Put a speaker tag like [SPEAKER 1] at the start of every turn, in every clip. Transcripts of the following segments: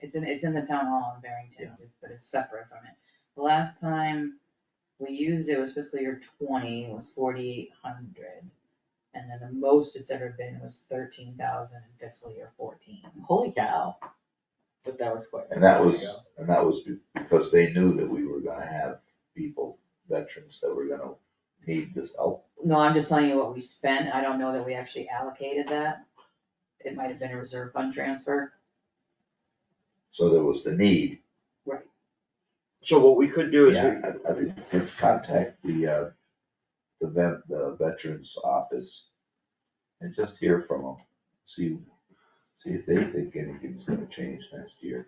[SPEAKER 1] It's in, it's in the town hall in Barrington, but it's separate from it. The last time we used it was fiscal year twenty, was forty-eight hundred. And then the most it's ever been was thirteen thousand in fiscal year fourteen.
[SPEAKER 2] Holy cow. But that was quite.
[SPEAKER 3] And that
[SPEAKER 2] long
[SPEAKER 3] was,
[SPEAKER 2] ago.
[SPEAKER 3] and that was be- because they knew that we were gonna have people, veterans that were gonna need this help.
[SPEAKER 1] No, I'm just telling you what we spent, I don't know that we actually allocated that. It might have been a reserve fund transfer,
[SPEAKER 3] So there was the need.
[SPEAKER 4] So what we could do is,
[SPEAKER 3] Yeah, I, I think let's contact the, uh, the vet, the veterans office and just hear from them. See, see if they think anything's gonna change next year.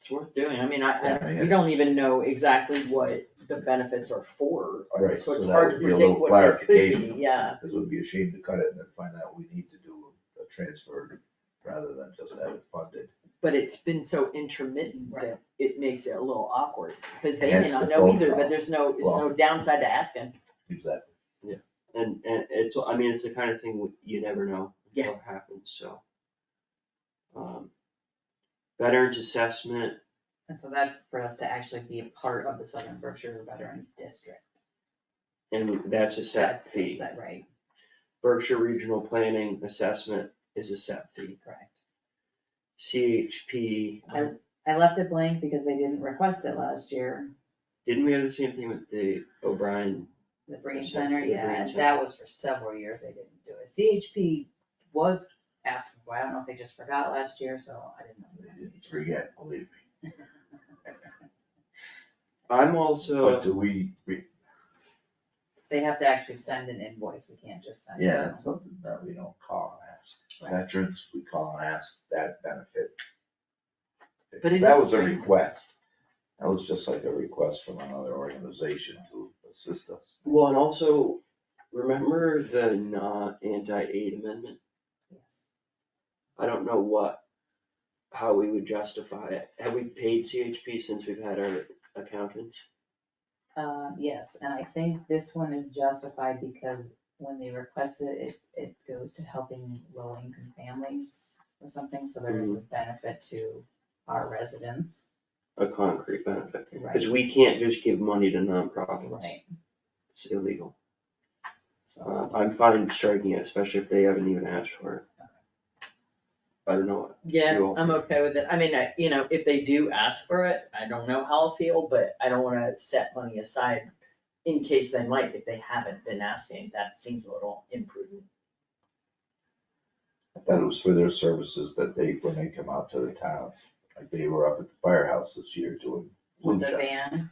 [SPEAKER 2] It's worth doing. I mean, I,
[SPEAKER 3] Yeah, I
[SPEAKER 2] I,
[SPEAKER 3] mean,
[SPEAKER 2] we don't
[SPEAKER 3] it's-
[SPEAKER 2] even know exactly what the benefits are for,
[SPEAKER 3] Right,
[SPEAKER 2] so
[SPEAKER 3] so
[SPEAKER 2] it's
[SPEAKER 3] that
[SPEAKER 2] hard to
[SPEAKER 3] would be a
[SPEAKER 2] predict
[SPEAKER 3] little
[SPEAKER 2] what it could be,
[SPEAKER 3] clarification.
[SPEAKER 2] yeah.
[SPEAKER 3] Cause it would be a shame to cut it and then find out we need to do a transfer rather than just have it funded.
[SPEAKER 2] But it's been so intermittent that it makes it a little awkward, because they may
[SPEAKER 3] Hence
[SPEAKER 2] not
[SPEAKER 3] the
[SPEAKER 2] know
[SPEAKER 3] phone
[SPEAKER 2] either, but
[SPEAKER 3] call.
[SPEAKER 2] there's no, there's
[SPEAKER 3] Well-
[SPEAKER 2] no downside to asking.
[SPEAKER 3] Exactly.
[SPEAKER 4] and, and it's, I mean, it's the kind of thing you never know until it happens, so. Um, Veterans assessment,
[SPEAKER 1] and so that's for us to actually be a part of the Southern Berkshire Veterans District.
[SPEAKER 4] and that's a set
[SPEAKER 1] That's,
[SPEAKER 4] fee.
[SPEAKER 1] is that right?
[SPEAKER 4] Berkshire Regional Planning Assessment is a set fee.
[SPEAKER 1] Correct.
[SPEAKER 4] CHP,
[SPEAKER 1] I, I left it blank because they didn't request it last year,
[SPEAKER 4] didn't we have the same thing with the O'Brien?
[SPEAKER 1] the Brain
[SPEAKER 4] Percent-
[SPEAKER 1] Center,
[SPEAKER 4] the
[SPEAKER 1] yeah,
[SPEAKER 4] Brain
[SPEAKER 1] and
[SPEAKER 4] Center.
[SPEAKER 1] that was for several years they didn't do it. CHP was asking, for it. I don't know if they just forgot last year, so I didn't know.
[SPEAKER 3] They didn't Forget, believe me.
[SPEAKER 4] I'm also,
[SPEAKER 3] But do we, we,
[SPEAKER 1] They have to actually send an invoice, we can't just send it.
[SPEAKER 3] yeah, that's something that we don't call and ask. Veterans, we call and ask that benefit.
[SPEAKER 2] But it
[SPEAKER 3] That
[SPEAKER 2] is
[SPEAKER 3] was a
[SPEAKER 2] strange.
[SPEAKER 3] request. That was just like a request from another organization to assist us.
[SPEAKER 4] well, and also, remember the not anti-aid amendment?
[SPEAKER 1] Yes.
[SPEAKER 4] I don't know what, how we would justify it. Have we paid CHP since we've had our accountants?
[SPEAKER 1] Uh, yes, and I think this one is justified because when they request it, it, it goes to helping low income families or something, so there is a
[SPEAKER 4] Mm-hmm.
[SPEAKER 1] benefit to our residents,
[SPEAKER 4] A concrete benefit?
[SPEAKER 1] right?
[SPEAKER 4] Because we can't just give money to nonprofits.
[SPEAKER 1] Right,
[SPEAKER 4] It's illegal.
[SPEAKER 1] so.
[SPEAKER 4] Uh, I'm fine striking it, especially if they haven't even asked for it. I don't know.
[SPEAKER 2] Yeah,
[SPEAKER 4] You're
[SPEAKER 2] I'm
[SPEAKER 4] welcome.
[SPEAKER 2] okay with it. I mean, I, you know, if they do ask for it, I don't know how I'll feel, but I don't wanna set money aside in case they might, if they haven't been asking, that seems a little imprudent.
[SPEAKER 3] I thought it was for their services that they, when they come out to the town, like they were up at the firehouse this year doing
[SPEAKER 1] with
[SPEAKER 3] flu
[SPEAKER 1] the
[SPEAKER 3] shot.
[SPEAKER 1] van.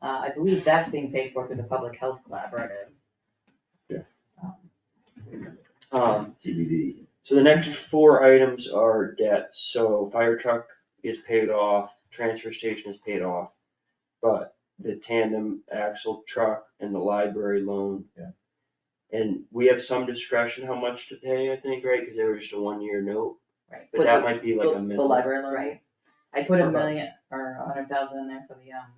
[SPEAKER 1] Uh, I believe that's being paid for through the Public Health Collaborative.
[SPEAKER 3] Yeah.
[SPEAKER 1] Um,
[SPEAKER 4] Um,
[SPEAKER 3] TBD.
[SPEAKER 4] so the next four items are debts. So fire truck is paid off, transfer station is paid off. But the tandem axle truck and the library loan And we have some discretion how much to pay, I think, right, cause they were just a one year note,
[SPEAKER 1] Right.
[SPEAKER 4] but that might be like a
[SPEAKER 2] The-
[SPEAKER 4] minimum.
[SPEAKER 2] The library loan,
[SPEAKER 1] Right, I put a
[SPEAKER 4] Okay.
[SPEAKER 1] million or a hundred thousand in there for the, um,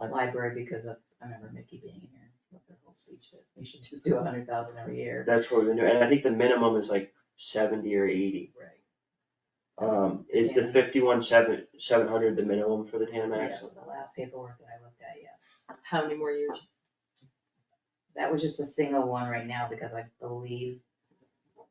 [SPEAKER 2] Like-
[SPEAKER 1] library because of, I remember Mickey being here with her whole speech that we should just do a hundred thousand every year.
[SPEAKER 4] That's what we're gonna do, and I think the minimum is like seventy or eighty,
[SPEAKER 1] Right.
[SPEAKER 4] um, is the
[SPEAKER 1] Yeah.
[SPEAKER 4] fifty one seven, seven hundred the minimum for the tandem
[SPEAKER 1] Yes,
[SPEAKER 4] axle?
[SPEAKER 1] the last paperwork that I looked at, yes.
[SPEAKER 2] how many more years?
[SPEAKER 1] That was just a single one right now because I believe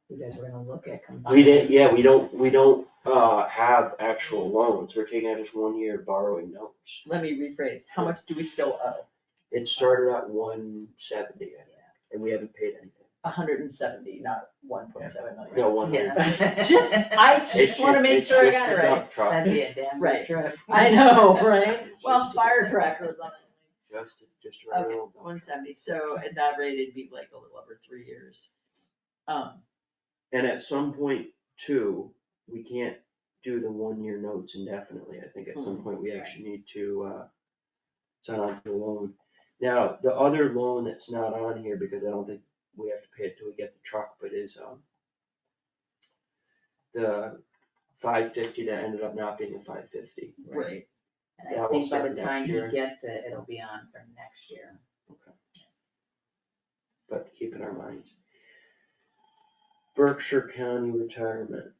[SPEAKER 1] you guys were gonna look at combined.
[SPEAKER 4] We didn't, yeah, we don't, we don't, uh, have actual loans, we're taking out just one year borrowing notes.
[SPEAKER 2] Let me rephrase, how much do we still owe?
[SPEAKER 4] It started at one seventy,
[SPEAKER 1] Yeah.
[SPEAKER 4] and we haven't paid anything,
[SPEAKER 2] hundred and seventy, not one point seven million.
[SPEAKER 4] no, one year.
[SPEAKER 1] Yeah.
[SPEAKER 2] Just- I
[SPEAKER 4] It's
[SPEAKER 2] just wanna
[SPEAKER 4] ju-
[SPEAKER 2] make
[SPEAKER 4] it's
[SPEAKER 2] sure I
[SPEAKER 4] just
[SPEAKER 2] got
[SPEAKER 4] a
[SPEAKER 2] it right.
[SPEAKER 4] dump truck.
[SPEAKER 1] That'd be a damn
[SPEAKER 2] Right.
[SPEAKER 1] good trip.
[SPEAKER 2] I know, right? Well, firecrackers on it.
[SPEAKER 4] Just, just a
[SPEAKER 2] Okay,
[SPEAKER 4] regular old dump
[SPEAKER 2] one seventy, so at that rate, it'd be like a little over three years. Um,
[SPEAKER 4] And at some point too, we can't do the one-year notes indefinitely, I think at some point we actually need to, uh, sign on for the loan. Now, the other loan that's not on here, because I don't think we have to pay it till we get the truck, but is, um, the five fifty that ended up not being a five fifty.
[SPEAKER 2] right,
[SPEAKER 1] And
[SPEAKER 4] Yeah,
[SPEAKER 1] I
[SPEAKER 4] we'll
[SPEAKER 1] think by
[SPEAKER 4] start
[SPEAKER 1] the
[SPEAKER 4] next
[SPEAKER 1] time he
[SPEAKER 4] year.
[SPEAKER 1] gets it, it'll be on for next year.
[SPEAKER 4] But keep in our minds. Berkshire County Retirement,